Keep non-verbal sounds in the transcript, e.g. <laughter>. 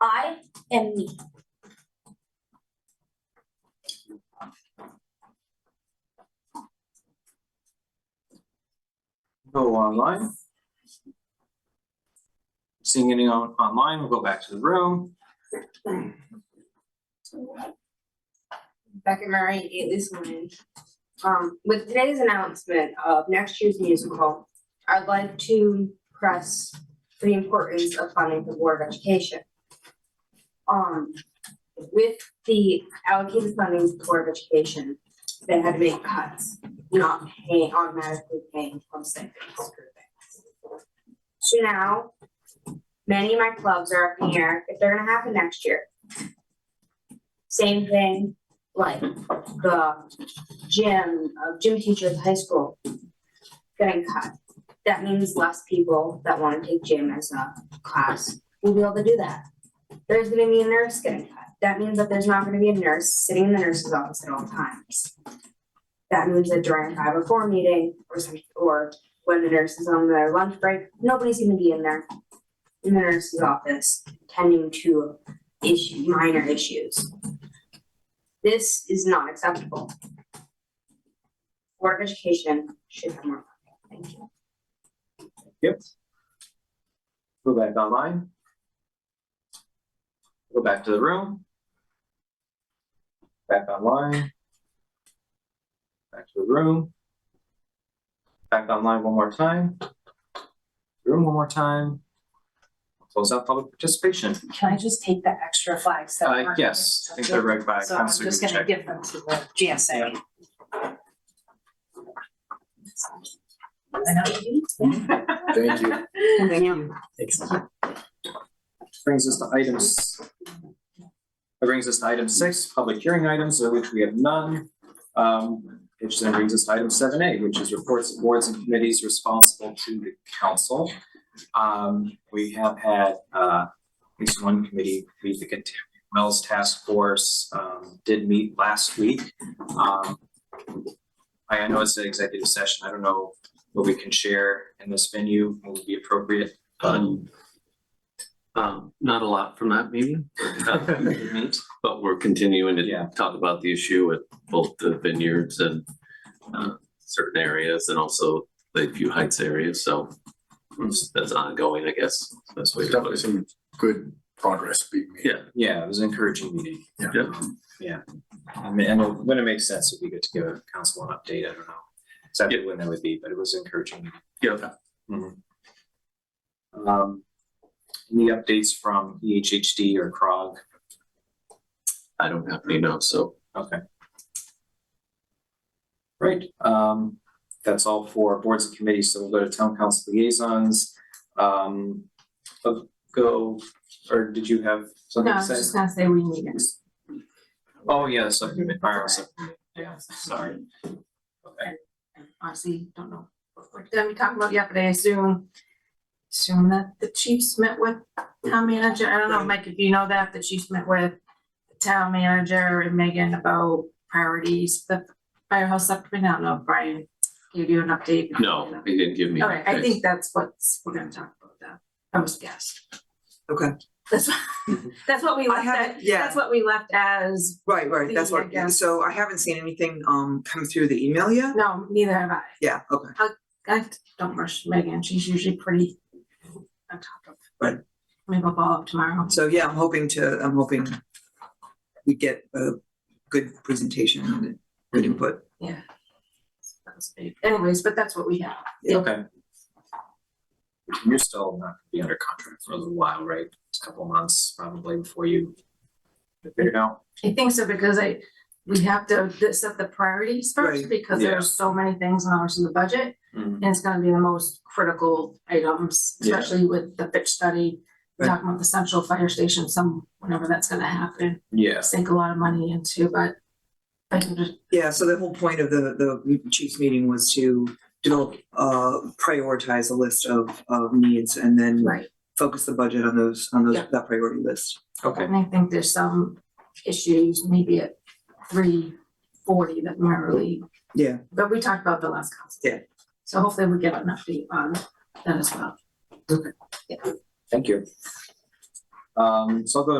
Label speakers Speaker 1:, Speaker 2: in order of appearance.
Speaker 1: I am me.
Speaker 2: Go online. Seeing anything on, online, we'll go back to the room.
Speaker 3: Becca Murray, Aitley's Lane. Um, with today's announcement of next year's musical, I'd like to press the importance of funding the Board of Education. Um, with the allocated funding to the Board of Education, they had to make cuts, not paying, automatically paying from stipends for things. So now, many of my clubs are up in the air if they're gonna happen next year. Same thing like the gym, uh, gym teacher at the high school getting cut. That means less people that wanna take gym as a class will be able to do that. There's gonna be a nurse getting cut. That means that there's not gonna be a nurse sitting in the nurse's office at all times. That means that during five or four meeting or some, or when the nurse is on their lunch break, nobody's gonna be in there in the nurse's office tending to issue, minor issues. This is not acceptable. Board of Education should have more. funding. Thank you.
Speaker 2: Yep. Go back online. Go back to the room. Back online. Back to the room. Back online one more time. Room one more time. Close out public participation.
Speaker 4: Can I just take the extra flags that
Speaker 2: Uh,
Speaker 4: aren't?
Speaker 2: yes, I think they're right by.
Speaker 4: So I'm just gonna give them to the GSA. I know.
Speaker 5: Thank
Speaker 4: <laughs>
Speaker 5: you.
Speaker 4: Thank you.
Speaker 2: Brings us to items. That brings us to item six, public hearing items, of which we have none. Um, which then brings us to item seven A, which is reports of boards and committees responsible to the council. Um, we have had, uh, at least one committee, meet the Contaminant Wells Task Force, um, did meet last week. Um, I I know it's an executive session. I don't know what we can share in this venue, what would be appropriate.
Speaker 6: Um, um, not a lot from that meeting, but, uh, but we're continuing
Speaker 2: Yeah.
Speaker 6: to talk about the issue at both the vineyards and uh, certain areas and also Lakeview Heights area, so it's- that's ongoing, I guess. That's what you're
Speaker 5: There's definitely some good progress being made.
Speaker 6: Yeah.
Speaker 2: Yeah, it was an encouraging meeting. Um,
Speaker 5: Yeah.
Speaker 6: Yeah.
Speaker 2: Yeah. I mean, and when it makes sense, it'd be good to give a council an update. I don't know exactly when that would be, but it was encouraging. meeting.
Speaker 6: Yeah.
Speaker 2: Mhm. Um, any updates from E EHHD or CROG?
Speaker 6: I don't have any notes, so
Speaker 2: Okay. Great, um, that's all for boards and committees, so we'll go to town council liaisons. Um, uh, go, or did you have something to say?
Speaker 3: gonna say we need it.
Speaker 2: Oh, yeah, subcommittee, fire subcommittee, yeah, sorry. Okay,
Speaker 7: honestly don't know. what we're- Then we talked about yesterday, I assume, assume that the chiefs met with town manager, I don't know, Mike, if you know that, the chiefs met with the town manager and Megan about priorities, the firehouse subcommittee, I don't know, if Brian gave you an update.
Speaker 6: no, he didn't give me.
Speaker 7: Okay, I think that's what's, we're gonna talk about that, I was guessed.
Speaker 8: Okay.
Speaker 7: That's,
Speaker 8: <laughs>
Speaker 7: that's what we
Speaker 8: I
Speaker 7: left,
Speaker 8: haven't,
Speaker 7: at-
Speaker 8: yeah,
Speaker 7: that's what we left as,
Speaker 8: right, right, that's
Speaker 7: Yeah, e-, yeah.
Speaker 8: what, so I haven't seen anything, um, come through the email yet?
Speaker 7: no, neither have I.
Speaker 8: Yeah, okay,
Speaker 7: I don't rush Megan, she's usually pretty on top of.
Speaker 8: Right.
Speaker 7: Maybe I'll follow up tomorrow.
Speaker 8: so yeah, I'm hoping to, I'm hoping we get a good presentation and good
Speaker 7: Mm-hmm.
Speaker 8: input.
Speaker 7: That was big. Anyways, but that's what we have.
Speaker 2: okay. You're still not gonna be under contract for a little while, right? It's a couple months probably before you figure it out.
Speaker 7: I think so because I, we have to th- set the priorities first
Speaker 8: Right. Mm-hmm.
Speaker 7: because there
Speaker 2: Yeah.
Speaker 7: are so many things in ours in the budget. And it's gonna be the most critical items,
Speaker 2: Yeah.
Speaker 7: especially with the pitch study.
Speaker 8: Right.
Speaker 7: Talking about the central fire station, some, whenever that's gonna happen,
Speaker 2: Yes,
Speaker 7: sink a lot of money into, but I can just
Speaker 8: Yeah, so the whole point of the, the chief's meeting was to develop, uh, prioritize a list of, of needs and then
Speaker 7: Right.
Speaker 8: focus the budget on those, on those,
Speaker 7: Yeah.
Speaker 8: that priority list.
Speaker 2: okay,
Speaker 7: And I think there's some issues maybe at three forty that weren't really,
Speaker 8: Yeah,
Speaker 7: but we talked about the last council.
Speaker 8: Yeah.
Speaker 7: So hopefully we get an update on that as well.
Speaker 2: thank you. Um, so I'll go